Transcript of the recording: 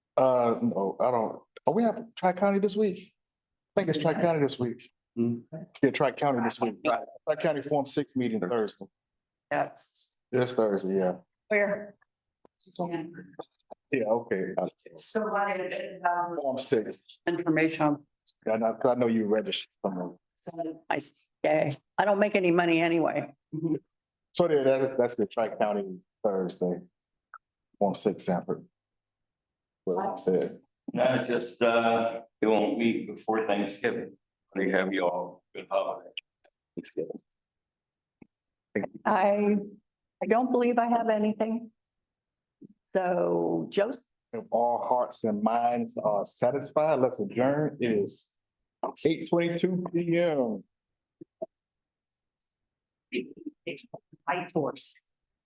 Uh, no, I don't. Oh, we have Tri-County this week. I think it's Tri-County this week. Hmm. Yeah, Tri-County this week. Tri-County Form Six meeting Thursday. Yes. This Thursday, yeah. Where? Yeah, okay. Uh, So why did it, um, Form Six. information on I know, 'cause I know you registered. somewhere. my stay? I don't make any money anyway. So there, that is, that's the Tri-County Thursday. Form Six Sanford. What I said. No, it's just, uh, it won't meet before Thanksgiving. They have you all good holiday. Thanksgiving. I, I don't believe I have anything. So Joseph, If all hearts and minds are satisfied, let's adjourn. It is eight twenty-two P M. I horse.